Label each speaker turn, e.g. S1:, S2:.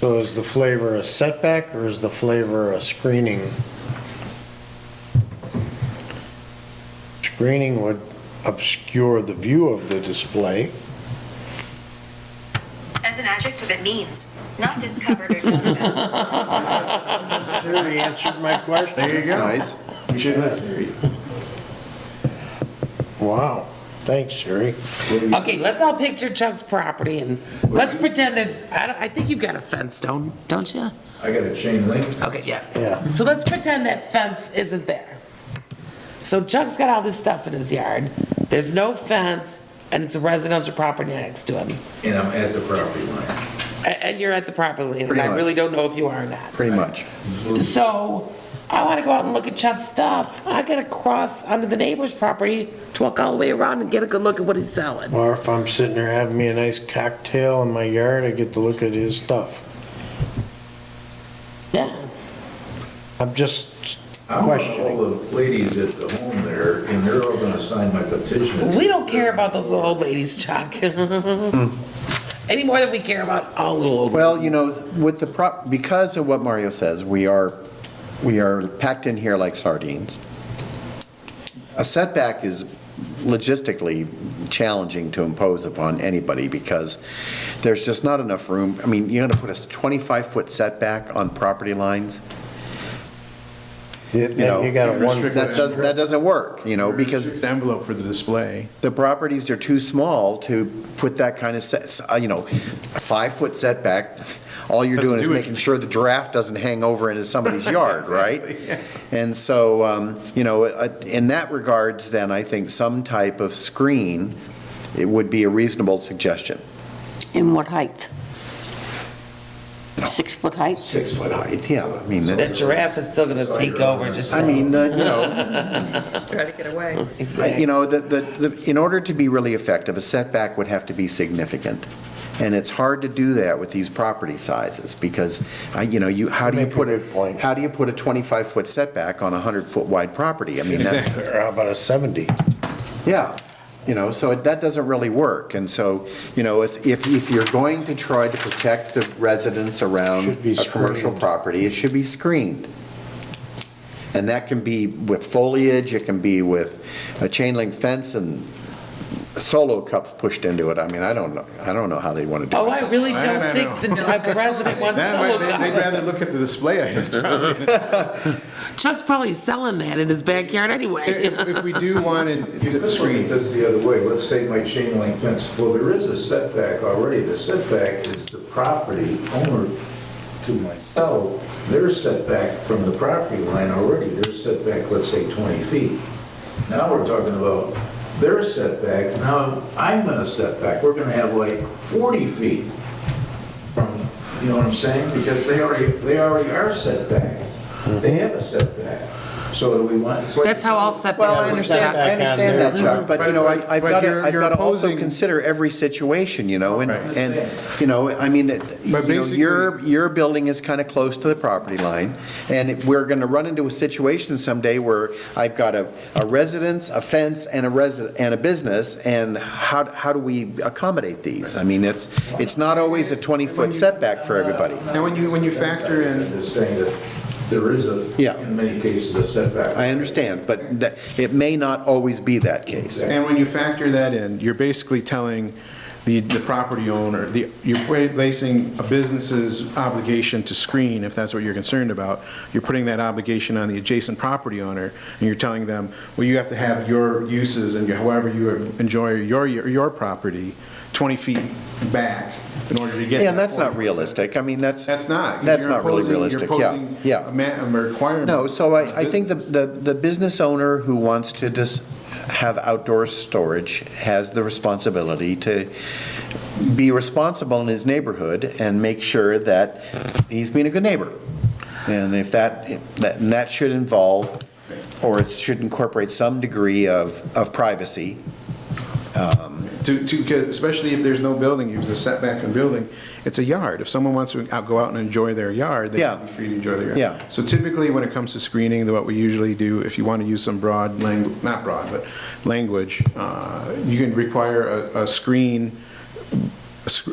S1: So is the flavor a setback or is the flavor a screening? Screening would obscure the view of the display.
S2: As an adjective, it means not discovered or known about.
S1: Siri answered my question.
S3: There you go. Nice. You should listen.
S1: Wow, thanks, Siri.
S4: Okay, let's all picture Chuck's property and let's pretend there's, I, don't- I think you've got a fence, don't, don't you?
S5: I got a chain link.
S4: Okay, yeah.
S1: Yeah.
S4: So let's pretend that fence isn't there. So Chuck's got all this stuff in his yard. There's no fence and it's a residential property next to him.
S5: And I'm at the property line.
S4: A- And you're at the property line and
S3: Pretty
S4: I
S3: much.
S4: really don't know if you are or not.
S3: Pretty much.
S4: So I want to go out and look at Chuck's stuff. I gotta cross onto the neighbor's property to walk all the way around and get a good look at what he's selling.
S1: Or if I'm sitting there having me a nice cocktail in my yard, I get to look at his stuff.
S4: Yeah.
S1: I'm just
S5: I'm with all
S1: questioning.
S5: the ladies at the home there, and they're all gonna sign my petition. It's-
S4: We don't care about those little old ladies, Chuck. Any more than we care about all little old.
S3: Well, you know, with the prop, because of what Mario says, we are, we are packed in here like sardines. A setback is logistically challenging to impose upon anybody because there's just not enough room. I mean, you're going to put a 25-foot setback on property lines?
S1: You
S3: know,
S1: you got a one,
S3: That doesn't, that doesn't work, you know, because
S6: Restricts Oh, envelope for the display.
S3: the properties are too small to put that kind of, set- uh, you know, a five-foot setback. All you're doing
S6: Doesn't
S3: is
S6: do
S3: making
S6: anything.
S3: sure the draft doesn't hang over into somebody's yard, right? And so, um, you know, uh, in that regards, then, I think some type of screen, it would be a reasonable suggestion.
S7: In what height? Six-foot height?
S3: Six-foot height, yeah, I mean,
S4: The
S3: that's,
S4: giraffe is still gonna peek over just.
S3: I mean, uh, you know,
S8: Try to get away.
S3: I- You know, the, the, the- in order to be really effective, a setback would have to be significant. And it's hard to do that with these property sizes, because, I- you know, you, how do you
S1: Make a
S3: put
S1: good point.
S3: How do you put a 25-foot setback on a 100-foot wide property? I mean, that's,
S1: or how about a 70?
S3: yeah, you know, so it- that doesn't really work. And so, you know, if, if if you're going to try to protect the residents around
S1: Should be
S3: a commercial
S1: screened.
S3: property, it should be screened. And that can be with foliage, it can be with a chain link fence and solo cups pushed into it. I mean, I don't know, I don't know how they want to do
S4: Oh,
S3: it.
S4: I really
S6: I
S4: don't
S6: don't
S4: think the the president wants
S6: That way,
S4: solo
S6: they- they'd
S4: cups.
S6: rather look at the display items.
S4: Chuck's probably selling that in his backyard anyway.
S6: If if we do want
S5: If this were,
S6: it,
S5: this the other way, let's say my chain link fence, well, there is a setback already. The setback is the property owner to myself. They're setback from the property line already. They're setback, let's say, 20 feet. Now we're talking about their setback. Now I'm going to setback. We're going to have like 40 feet from, you know what I'm saying? Because they already, they already are setback. They have a setback. So do we want? it's like-
S4: That's how all
S3: Well, I
S4: setbacks are set.
S3: understand, I understand that, Chuck, but, you know,
S6: But-
S3: I- I've
S6: but
S3: got to,
S6: you're-
S3: I've
S6: you're
S3: got to also
S6: opposing-
S3: consider every situation, you know, and,
S6: Right.
S3: and, you know, I mean, it- you
S6: But
S3: know, your,
S6: basically-
S3: your building is kind of close to the property line, and it- we're going to run into a situation someday where I've got a, a residence, a fence, and a resident, and a business, and how, how do we accommodate these? I mean, it's, it's not always a 20-foot setback for everybody.
S6: and when you, when you factor in,
S5: Is saying that there is a,
S3: Yeah.
S5: in many cases, a setback.
S3: I understand, but that- it may not always be that case.
S6: and when you factor that in, you're basically telling the, the property owner, the, you're placing a business's obligation to screen, if that's what you're concerned about, you're putting that obligation on the adjacent property owner, and you're telling them, well, you have to have your uses and however you enjoy your, your your property 20 feet back in order to get.
S3: Yeah, and
S6: that
S3: that's not
S6: 40%.
S3: realistic. I mean, that's.
S6: That's not.
S3: That's
S6: You're
S3: not really
S6: imposing-
S3: realistic,
S6: You're
S3: yeah,
S6: imposing
S3: yeah.
S6: a ma- a requirement.
S3: No, so I, I think the, the, the business owner who wants to just have outdoor storage has the responsibility to be responsible in his neighborhood and make sure that he's being a good neighbor. And if that, that, and that should involve, or it should incorporate some degree of, of privacy.
S6: To, to, 'cause especially if there's no building, use the setback from building, it's a yard. If someone wants to out- go out and enjoy their yard, they
S3: Yeah.
S6: should be free to enjoy their yard.
S3: Yeah.
S6: So typically, when it comes to screening, what we usually do, if you want to use some broad language, not broad, but language, uh, you can require a, a screen, a sc-